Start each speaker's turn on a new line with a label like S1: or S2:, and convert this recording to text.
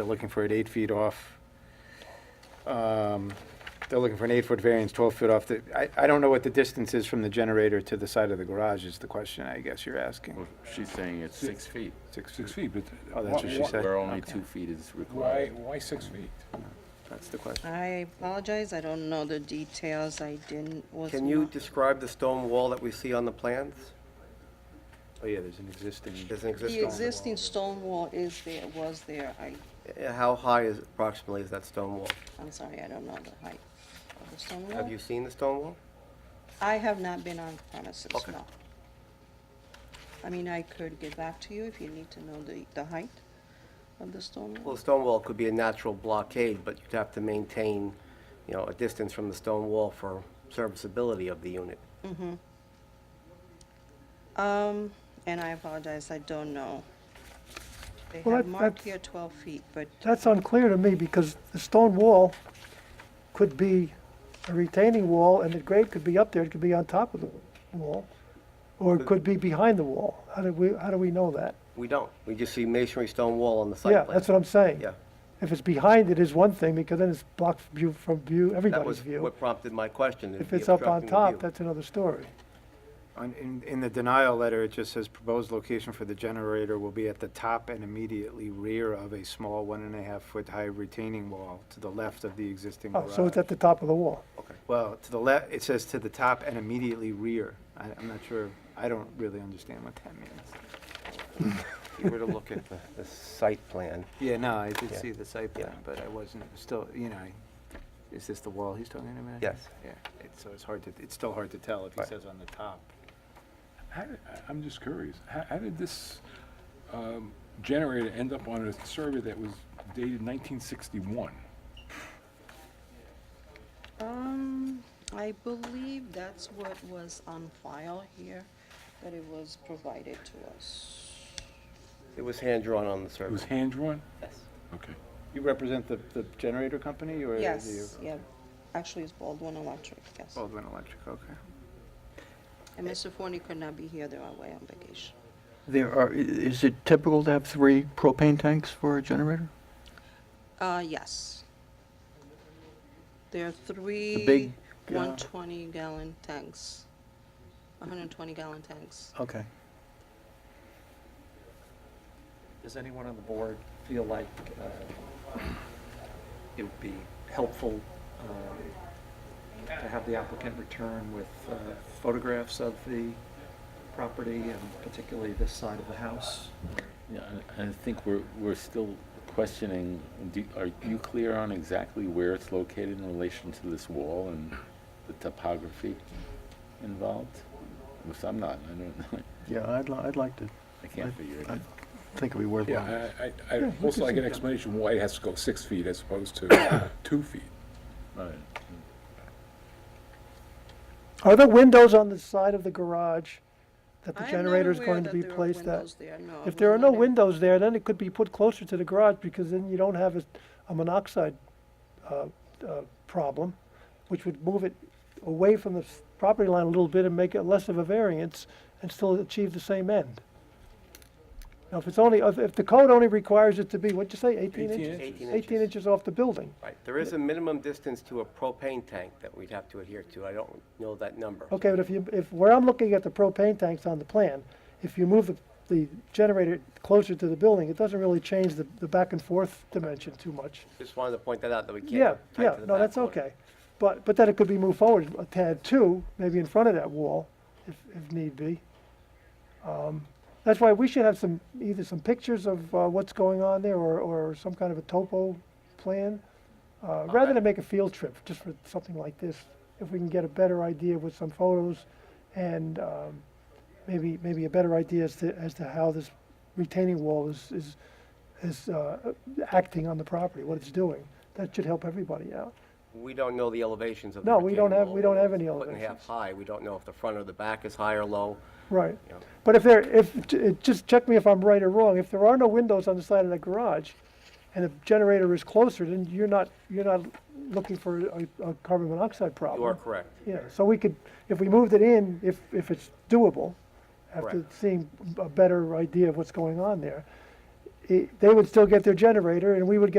S1: They're looking for it eight feet off. Um, They're looking for an eight-foot variance, 12 foot off the, I, I don't know what the distance is from the generator to the side of the garage is the question I guess you're asking.
S2: Well, she's saying it's six feet,
S1: Six
S3: Six
S1: feet,
S3: feet, but.
S1: Oh, that's what she
S3: why-
S1: said.
S2: where only
S1: Okay.
S2: two feet is
S3: Why,
S2: required.
S3: why six feet?
S1: that's the question.
S4: I apologize, I don't know the details, I didn't, was
S5: Can you
S4: not-
S5: describe the stone wall that we see on the plans?
S1: Oh, yeah, there's an existing,
S5: There's an
S4: The
S5: existing.
S4: existing stone wall is there, was there, I,
S5: Uh, How high is, approximately is that stone wall?
S4: I'm sorry, I don't know the height of the stone wall.
S5: Have you seen the stone wall?
S4: I have not been on premises,
S5: Okay.
S4: no. I mean, I could get back to you if you need to know the, the height of the stone
S5: Well,
S4: wall.
S5: the stone wall could be a natural blockade, but you'd have to maintain, you know, a distance from the stone wall for serviceability of the unit.
S4: Um, and I apologize, I don't know. They
S6: Well,
S4: have
S6: that-
S4: marked
S6: that's-
S4: here twelve feet, but
S6: That's unclear to me because the stone wall could be a retaining wall and the grade could be up there, it could be on top of the wall. Or it could be behind the wall. How do we, how do we know that?
S5: We don't. We just see masonry stone wall on the site
S6: Yeah,
S5: plan.
S6: that's what I'm saying.
S5: Yeah.
S6: If it's behind it is one thing because then it's blocked from view, from view,
S5: That
S6: everybody's
S5: was
S6: view.
S5: what prompted my question.
S6: If
S5: the
S6: it's up on
S5: obstructing the view.
S6: top, that's another story.
S1: on- in, in the denial letter, it just says proposed location for the generator will be at the top and immediately rear of a small one and a half foot high retaining wall to the left of the existing
S6: Oh,
S1: garage.
S6: so it's at the top of the wall.
S1: Well, to the left, it says to the top and immediately rear. I, I'm not sure, I don't really understand what that means.
S5: If you were to look at the, the site plan,
S1: Yeah, no, I did
S5: Yeah.
S1: see the site
S5: Yeah.
S1: plan, but I wasn't, still, you know, I- is this the wall he's talking about?
S5: Yes.
S1: Yeah, it's- so it's hard to, it's still hard to tell if he
S5: Right.
S1: says on the top.
S3: How did- I- I'm just curious, how, how did this um, generator end up on a survey that was dated 1961?
S4: Um, I believe that's what was on file here, that it was provided to us.
S5: it was hand-drawn on the
S3: It was
S5: survey.
S3: hand-drawn?
S5: Yes.
S3: Okay.
S1: You represent the, the generator company or?
S4: Yes, yeah, actually it's Baldwin Electric, yes.
S6: Oh.
S1: Baldwin Electric, okay.
S4: And Mr. Forney could not be here, they're away on vacation.
S7: There are, i- is it typical to have three propane tanks for a generator?
S4: Uh, yes. There are three
S7: big, uh,
S4: one twenty gallon tanks, hundred and twenty gallon tanks.
S7: Okay.
S8: Does anyone on the board feel like uh, it would be helpful um, to have the applicant return with uh, photographs of the property and particularly this side of the house?
S2: Yeah, I I think we're, we're still questioning, do- are you clear on exactly where it's located in relation to this wall and the topography involved? Because I'm not, I don't, know.
S7: Yeah, I'd, li- I'd like to,
S2: I can't figure it
S7: I
S2: out.
S7: think it'd be worthwhile.
S3: Yeah, I, I- I, also like an explanation why it has to go six feet as opposed to two feet.
S2: Right.
S6: Are there windows on the side of the garage that the
S4: I am not
S6: generator is
S4: aware
S6: going to
S4: that
S6: be
S4: there are
S6: placed at?
S4: windows there, no, I
S6: If there are
S4: was
S6: no
S4: not in-
S6: windows there, then it could be put closer to the garage because then you don't have a, a monoxide, uh, uh, problem, which would move it away from the s- property line a little bit and make it less of a variance and still achieve the same end. Now, if it's only, if, if the code only requires it to be, what'd you say,
S3: 18
S6: eighteen inches?
S3: inches.
S5: Eighteen inches.
S6: Eighteen inches off the building.
S5: Right, there is a minimum distance to a propane tank that we'd have to adhere to. I don't know that number.
S6: Okay, but if you, if, where I'm looking at the propane tanks on the plan, if you move the, the generator closer to the building, it doesn't really change the, the back and forth dimension too much.
S5: Just wanted to point that out, that we can't.
S6: Yeah,
S5: tight
S6: yeah,
S5: to the
S6: no,
S5: back
S6: that's
S5: corner.
S6: okay. But, but then it could be moved forward a tad too, maybe in front of that wall, if, if need be. Um, That's why we should have some, either some pictures of uh, what's going on there or, or some kind of a topo plan. uh, Rather than make a field trip, just for something like this, if we can get a better idea with some photos and um, maybe, maybe a better idea as to, as to how this retaining wall is, is, is uh, acting on the property, what it's doing. That should help everybody out.
S5: We don't know the elevations of the.
S6: No, we don't
S5: retaining
S6: have-
S5: wall,
S6: we don't
S5: whether
S6: have
S5: it's
S6: any
S5: Foot and a half
S6: elevations.
S5: high, we don't know if the front or the back is high or low.
S6: Right.
S5: Yeah.
S6: But if there, if, it- just check me if I'm right or wrong, if there are no windows on the side of the garage and the generator is closer, then you're not, you're not looking for a, a carbon monoxide problem.
S5: You are correct.
S6: Yeah, so we could, if we moved it in, if, if it's doable, after
S5: Correct.
S6: seeing a better idea of what's going on there, he- they would still get their generator, and we would get